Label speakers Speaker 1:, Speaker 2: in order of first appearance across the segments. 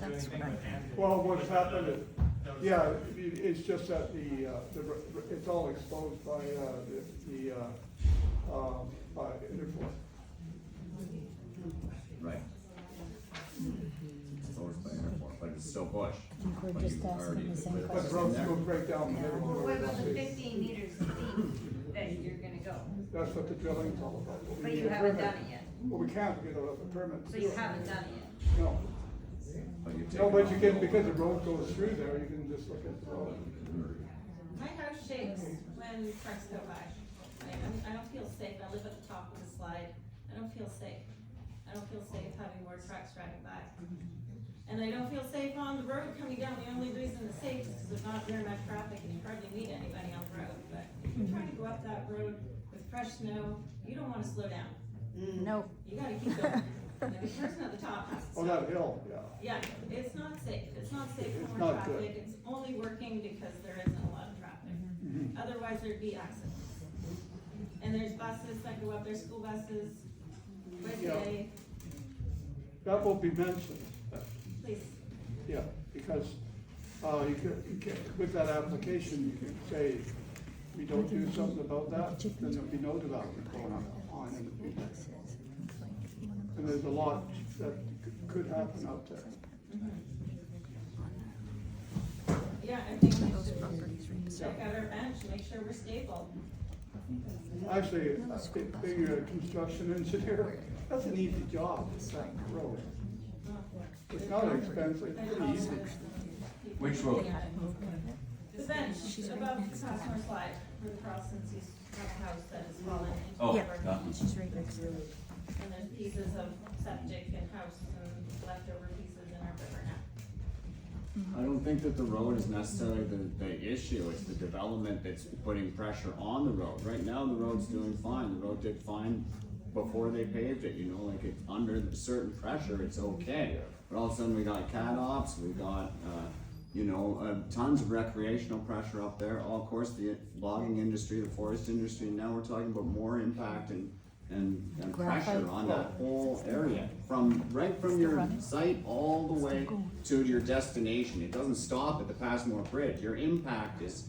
Speaker 1: That's
Speaker 2: anything
Speaker 1: what I
Speaker 2: with
Speaker 1: think.
Speaker 2: Anthony.
Speaker 3: Well, what's happened is,
Speaker 2: That was-
Speaker 3: yeah, it- it's just that the, uh, the, r- it's all exposed by, uh, the, the, uh, um, by Interfor.
Speaker 1: Right. It's always by airport, but it's still bush.
Speaker 4: think we're
Speaker 1: But
Speaker 4: just
Speaker 1: you
Speaker 4: asking
Speaker 1: already-
Speaker 4: the same
Speaker 1: but it's
Speaker 3: But
Speaker 4: question.
Speaker 1: in
Speaker 3: roads
Speaker 1: there.
Speaker 3: will break down the middle.
Speaker 5: Well,
Speaker 3: of
Speaker 5: What
Speaker 3: the
Speaker 5: about the
Speaker 3: road.
Speaker 5: fifteen meters deep that you're gonna go?
Speaker 3: That's what the drilling's all about. We
Speaker 5: But
Speaker 3: need
Speaker 5: you
Speaker 3: a
Speaker 5: haven't
Speaker 3: permit.
Speaker 5: done it yet,
Speaker 3: Well, we can't, we don't have a permit. to
Speaker 5: so
Speaker 3: do
Speaker 5: you
Speaker 3: it.
Speaker 5: haven't done it
Speaker 3: No,
Speaker 1: But you've
Speaker 3: no,
Speaker 1: taken
Speaker 3: but
Speaker 1: off
Speaker 3: you
Speaker 1: the
Speaker 3: can,
Speaker 1: old
Speaker 3: because the
Speaker 1: one.
Speaker 3: road goes through there, you can just look at the road.
Speaker 6: My house shakes when trucks go by. I, I'm- I don't feel safe, I live at the top of the slide, I don't feel safe. I don't feel safe having more trucks driving by. And I don't feel safe on the road coming down, the only reason it's safe is because there's not very much traffic and you hardly meet anybody on the road, but if you're trying to go up that road with fresh snow, you don't wanna slow down,
Speaker 4: No,
Speaker 6: you gotta keep going. And the person at the top has to
Speaker 3: Oh,
Speaker 6: stop.
Speaker 3: that hill, yeah.
Speaker 6: Yeah, it's not safe, it's not safe
Speaker 3: It's
Speaker 6: for more
Speaker 3: not good.
Speaker 6: traffic, it's only working because there isn't a lot of traffic.
Speaker 3: Mm-hmm.
Speaker 6: Otherwise, there'd be accidents. And there's buses that go up, there's school buses, but
Speaker 3: Yeah.
Speaker 6: they,
Speaker 3: That will be mentioned,
Speaker 6: please,
Speaker 3: yeah, because, uh, you can, you can, with that application, you can say, we don't do something about that, then there'll be no development going on in the future. And there's a lot that c- could happen out there.
Speaker 6: yeah, I think we should check out our bench, make sure we're stable.
Speaker 3: Actually, uh, being a construction engineer, that's an easy job, that road. It's not expensive,
Speaker 6: I
Speaker 3: it's pretty
Speaker 6: promise
Speaker 3: easy.
Speaker 6: people
Speaker 1: Which
Speaker 6: can
Speaker 1: road?
Speaker 6: get it. The bench above the Passmore slide, where the Carlson's used to have a house that has fallen into.
Speaker 1: Oh,
Speaker 4: yeah,
Speaker 6: our-
Speaker 1: that one.
Speaker 4: she's right next to it.
Speaker 6: And there's pieces of septic and house and leftover pieces in our river now.
Speaker 1: I don't think that the road is necessarily the, the issue, it's the development that's putting pressure on the road. Right now, the road's doing fine, the road did fine before they paved it, you know, like it's under the certain pressure, it's okay. But all of a sudden, we got cat ops, we got, uh, you know, uh, tons of recreational pressure up there. All, of course, the logging industry, the forest industry, and now we're talking about more impact and, and, and pressure
Speaker 4: Graphite.
Speaker 1: on that whole area. From, right from your
Speaker 4: running.
Speaker 1: site all the way to your destination. It doesn't stop at the Passmore Bridge. Your impact is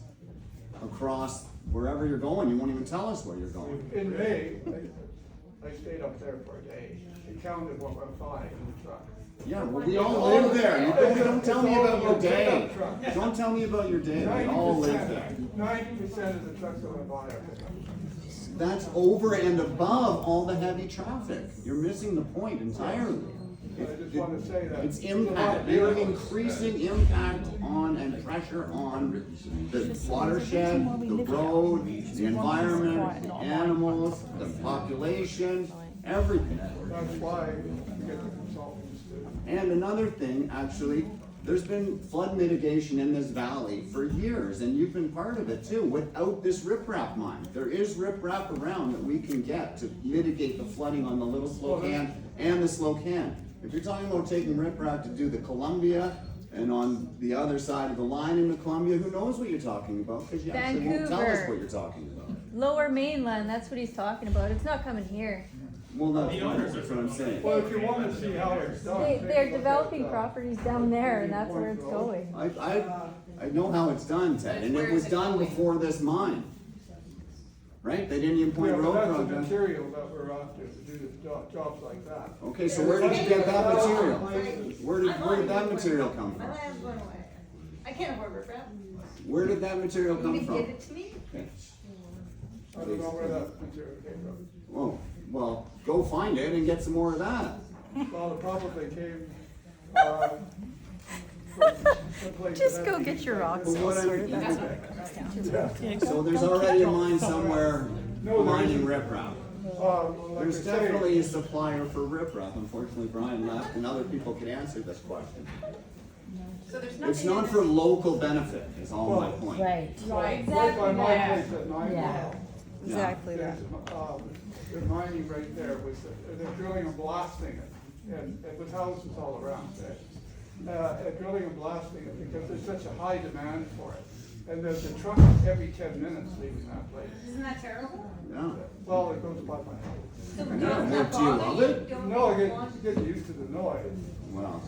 Speaker 1: across wherever you're going. You won't even tell us where you're going.
Speaker 3: In May, I- I stayed up there for a day, and counted what went by in the truck.
Speaker 1: Yeah, well, we all live there. You don't, don't tell me about your day. Don't tell me about your day. We all live there.
Speaker 3: Ninety percent of the trucks that went by are pickups.
Speaker 1: That's over and above all the heavy traffic. You're missing the point entirely.
Speaker 3: I just wanna say that.
Speaker 1: It's impact, you're increasing impact on and pressure on the watershed, the road, the environment, the animals, the population, everything.
Speaker 3: That's why you get the consultants to,
Speaker 1: And another thing, actually, there's been flood mitigation in this valley for years, and you've been part of it too, without this riprap mine. There is riprap around that we can get to mitigate the flooding on the Little Slocan and the Slocan. If you're talking about taking riprap to do the Columbia and on the other side of the line into Columbia, who knows what you're talking about? Because you actually won't tell us
Speaker 4: Vancouver.
Speaker 1: what you're talking about.
Speaker 4: Lower mainland, that's what he's talking about. It's not coming here.
Speaker 1: Well, that's
Speaker 2: The
Speaker 1: fine,
Speaker 2: owners
Speaker 1: that's
Speaker 2: are
Speaker 1: what I'm
Speaker 2: the
Speaker 1: saying.
Speaker 3: well, if you wanna see how it's done.
Speaker 4: They,
Speaker 3: take a
Speaker 4: they're
Speaker 3: look at,
Speaker 4: developing
Speaker 3: uh,
Speaker 4: properties down there and that's where it's going.
Speaker 1: I, I, I know how it's done, Ted, and it was done before this mine. Right? They didn't even
Speaker 3: Yeah,
Speaker 1: point
Speaker 3: but
Speaker 1: road
Speaker 3: that's the
Speaker 1: project.
Speaker 3: material that we're after to do the job, jobs like that.
Speaker 1: Okay, so where did you get that material? Where did, where did that material come
Speaker 5: yet. My
Speaker 1: from?
Speaker 5: land's going away. I can't afford riprap.
Speaker 1: Where did that material
Speaker 5: You
Speaker 1: come
Speaker 5: can give
Speaker 1: from?
Speaker 5: it to me?
Speaker 1: Okay.
Speaker 3: I don't know where that material came from.
Speaker 1: Oh, well, go find it and get some more of that.
Speaker 3: Well, it probably came, uh, from someplace
Speaker 4: Just
Speaker 3: that
Speaker 4: go
Speaker 3: had
Speaker 4: get
Speaker 3: these
Speaker 4: your
Speaker 3: like
Speaker 4: rocks
Speaker 3: this.
Speaker 1: But what
Speaker 4: all sorted
Speaker 1: I'm-
Speaker 4: out.
Speaker 1: So there's already a mine somewhere
Speaker 3: No, there
Speaker 1: mining
Speaker 3: isn't.
Speaker 1: riprap.
Speaker 3: Uh, like I
Speaker 1: There's
Speaker 3: say,
Speaker 1: definitely a supplier for riprap. Unfortunately, Brian left and other people could answer this question.
Speaker 5: So there's
Speaker 1: It's
Speaker 5: nothing in
Speaker 1: not
Speaker 5: this.
Speaker 1: for local benefit, is all my
Speaker 3: Well,
Speaker 1: point.
Speaker 4: Right,
Speaker 3: right by my place at nine
Speaker 4: Yeah.
Speaker 3: mile,
Speaker 4: exactly that.
Speaker 3: there's, um, they're mining right there with, the- they're drilling and blasting it, and, and with houses all around it. Uh, they're drilling and blasting it because there's such a high demand for it, and there's a truck every ten minutes leaving that place.
Speaker 5: Isn't that terrible?
Speaker 1: Yeah.
Speaker 3: Well, it goes by my house.
Speaker 5: So
Speaker 1: know.
Speaker 5: does that
Speaker 1: Well, do you
Speaker 5: bother
Speaker 1: love
Speaker 5: you?
Speaker 1: it?
Speaker 5: Don't
Speaker 3: No,
Speaker 5: you
Speaker 3: I
Speaker 5: want-
Speaker 4: Oh,
Speaker 3: get, get used to the noise.
Speaker 1: Well.